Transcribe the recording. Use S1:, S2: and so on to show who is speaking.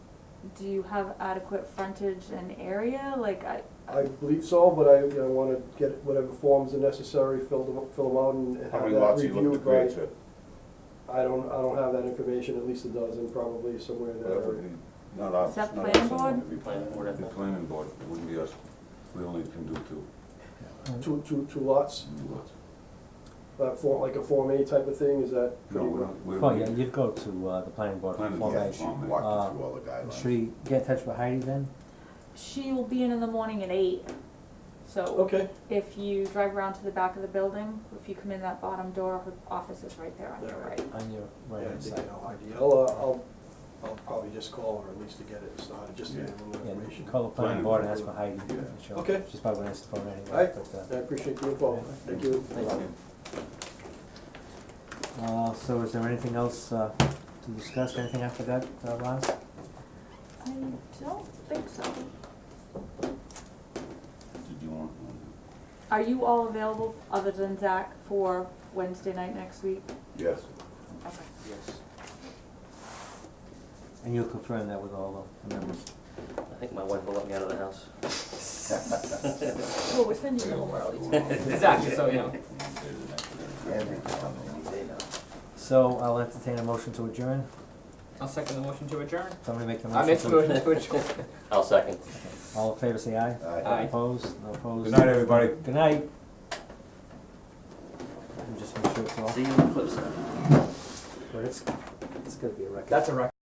S1: do you have adequate frontage and area? Like, I,
S2: I believe so, but I, you know, wanna get whatever forms are necessary, fill them, fill them out and
S3: How
S2: have
S3: many
S2: that
S3: lots are you looking to
S2: reviewed
S3: create,
S2: by.
S3: Chip?
S2: I don't, I don't have that information, at least a dozen probably somewhere in that
S3: That would
S2: area.
S3: be Not us.
S1: Is that
S3: not us,
S1: planning board?
S3: someone would be
S4: Planning board, I
S3: The
S4: think.
S3: planning board, it wouldn't be us, we only can do two,
S2: Two, two, two lots,
S3: two lots.
S2: that form, like a Form A type of thing, is that?
S3: No, we're not, we're.
S4: Well, Oh, yeah, you'd go to, uh, the planning board for
S3: Planning
S4: Form
S3: board,
S4: A.
S5: Yeah, she
S3: Form A.
S5: walked
S4: Uh,
S5: you through all the guidelines.
S4: Should we get in touch with Heidi then?
S1: she will be in in the morning at eight. So
S2: Okay,
S1: if you drive around to the back of the building, if you come in that bottom door, her office is right there on your
S2: Yeah.
S1: right.
S4: On your
S2: yeah, I
S4: right hand
S2: think I
S4: side.
S2: know, Heidi. I'll, uh, I'll, I'll probably just call her at least to get it started, just to get a little
S4: Yeah, you
S2: information.
S4: can call the
S3: Planning
S4: planning board and
S3: board.
S4: ask for Heidi.
S3: Yeah.
S4: She'll-
S2: Okay.
S4: She's probably gonna answer the phone anyway,
S2: Alright.
S4: but, uh,
S2: I appreciate the info, thank you.
S4: Thank you. Uh, so is there anything else, uh, to discuss, anything I forgot, uh, Roz?
S1: I don't think so.
S3: Did you want?
S1: Are you all available, other than Zach, for Wednesday night next week?
S5: Yes,
S1: Okay.
S6: Yes,
S4: And you'll confirm that with all the members.
S6: I think my wife will let me out of the house.
S1: Well, we're sending you home early.
S6: Exactly, so, you know.
S5: everything on the list.
S4: So I'll entertain a motion to adjourn.
S7: I'll second the motion to adjourn.
S4: Somebody make the
S7: I
S4: motion.
S7: make the
S4: to-
S7: motion to adjourn.
S6: I'll second.
S4: All in favor, say aye.
S7: Aye.
S4: Opposed, no opposed.
S3: Good night, everybody.
S4: Good night. I'm just gonna show it off,
S6: See you on the flip side.
S4: but it's, it's gonna be a record.
S7: That's a record.